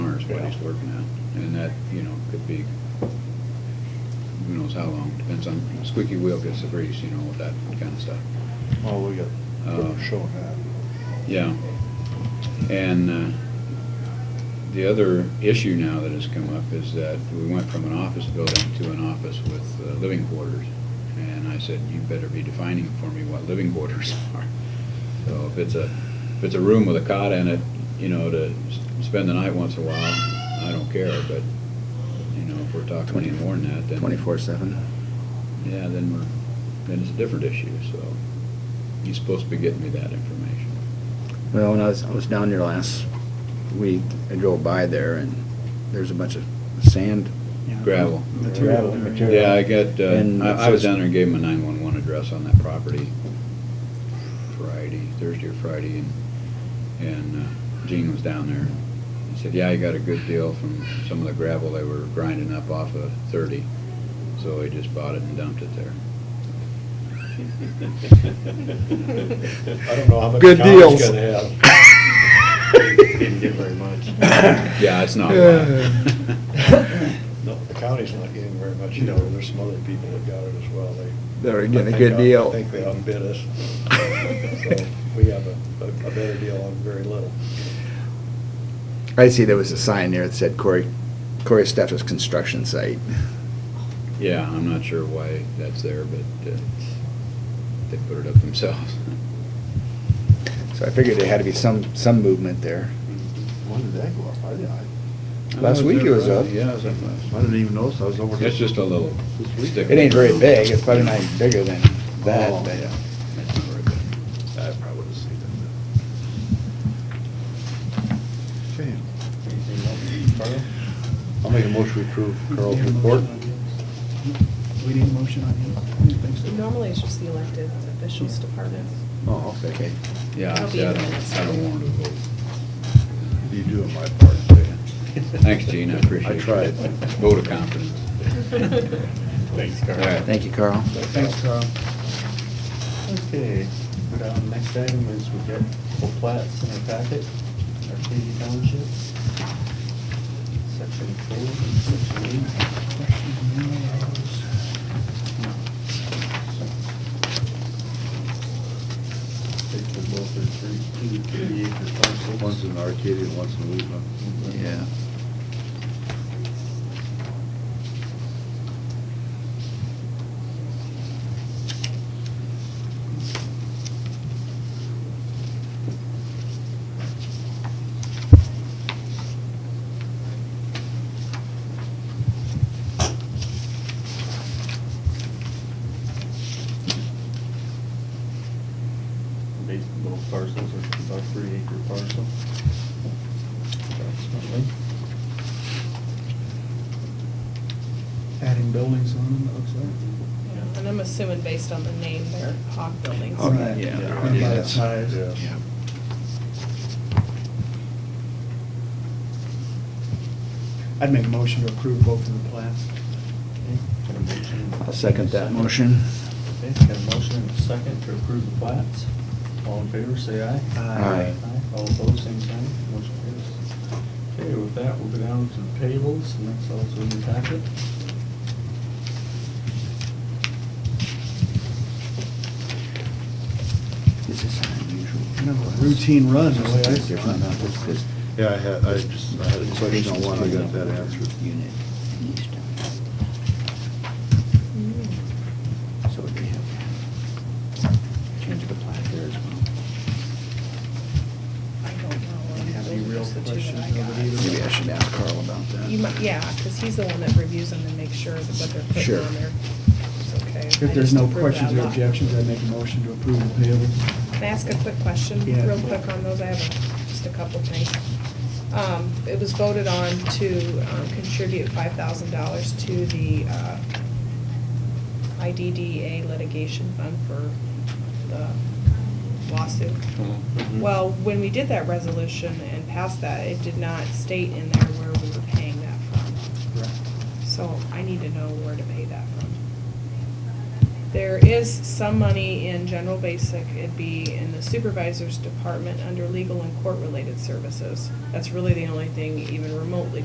what he's working on. And that, you know, could be, who knows how long, depends on, squeaky wheel gets the grease, you know, with that kind of stuff. Oh, we got, Uh, showing that. Yeah. And uh, the other issue now that has come up is that we went from an office building to an office with uh, living quarters. And I said, you better be defining for me what living quarters are. So if it's a, if it's a room with a cot in it, you know, to s- spend the night once in a while, I don't care, but, you know, if we're talking any more than that, then. Twenty-four seven. Yeah, then we're, then it's a different issue, so you're supposed to be getting me that information. Well, when I was, I was down there last week, I drove by there and there's a bunch of sand. Gravel. Gravel material. Yeah, I got, And uh, I I was so- down there and gave him a 911 address on that property Friday, Thursday or Friday, and, and uh, Gene was down there. He said, yeah, he got a good deal from some of the gravel they were grinding up off of 30, so he just bought it and dumped it there. I don't know how much Good time it's deals. gonna have. Didn't get very much. Yeah, it's not a Yeah. lot. No, the county's not getting very much, you know, there's some other people that got it as well, they. They're I getting think a good out- deal. I think they outbid us. So We have a, a- a better deal on very little. I see there was a sign there that said Corey, Corey Steffes Construction Site. Yeah, I'm not sure why that's there, but uh, they put it up themselves. So I figured there had to be some, some movement there. When did that go up? I didn't, I Last week it was up. Yeah, it was up last. I didn't even notice, I was over there. It's just a little This week? sticker. It ain't very big, it's probably not even bigger than Oh. that, but. uh, That's not very big. I probably would've seen it. Okay. I'll make a motion to approve Carl's report. We need a motion on him? I don't think so. Normally, it's just the elected officials department. Oh, okay. Yeah, I It'll be said, in the minutes. I don't want to vote. You doing my part today. Thanks, Gene, I appreciate I it. tried. Vote of confidence. Thanks, All Carl. right. Thank you, Carl. Thanks, Carl. Okay, now, next item is we've got full plats in our packet, Arcadia Township, section four, and section eight. Take the both or three, two, three acre parcels. One's in Arcadia, one's in Wheatland. Yeah. Based on both parcels, are about three acre parcel. approximately. Adding buildings on them, it looks like. Yeah. And I'm assuming based on the name, they're Hawk buildings. Oh, Right. yeah. And by the size. Yeah. I'd make a motion to approve both of the plans. Okay, got a motion. I'll second that motion. Okay, got a motion and a second to approve the plats. All in favor, say aye. Aye. All opposed, same sign, motion carries. Okay, with that, we'll go down to the payables, and that's also in the packet. This is unusual. Kind of a routine run, the way I It's see different, it. not just this- uh, Yeah, I had, I just, I had a question on one, I got that answered. Unit in Easton. Mm-hmm. So would they have change the plat there as well? I don't know. Have any Those are real just the two that questions I over got. these? Maybe I should ask Carl about You that. might, yeah, because he's the one that reviews them and makes sure that what they're putting Sure. on there is okay. I If just there's no approved questions that or lot. objections, I'd make a motion to approve the payables. Can I ask a quick question, Yeah. real quick on those? I have a- just a couple things. Um, It was voted on to um, contribute five thousand dollars to the uh, IDDA litigation fund for the lawsuit. Well, when we did that resolution and passed that, it did not state in there where we were paying that from. So I need to know where to pay that from. There is some money in general basic, it'd be in the supervisor's department under legal and court-related services. That's really the only thing even remotely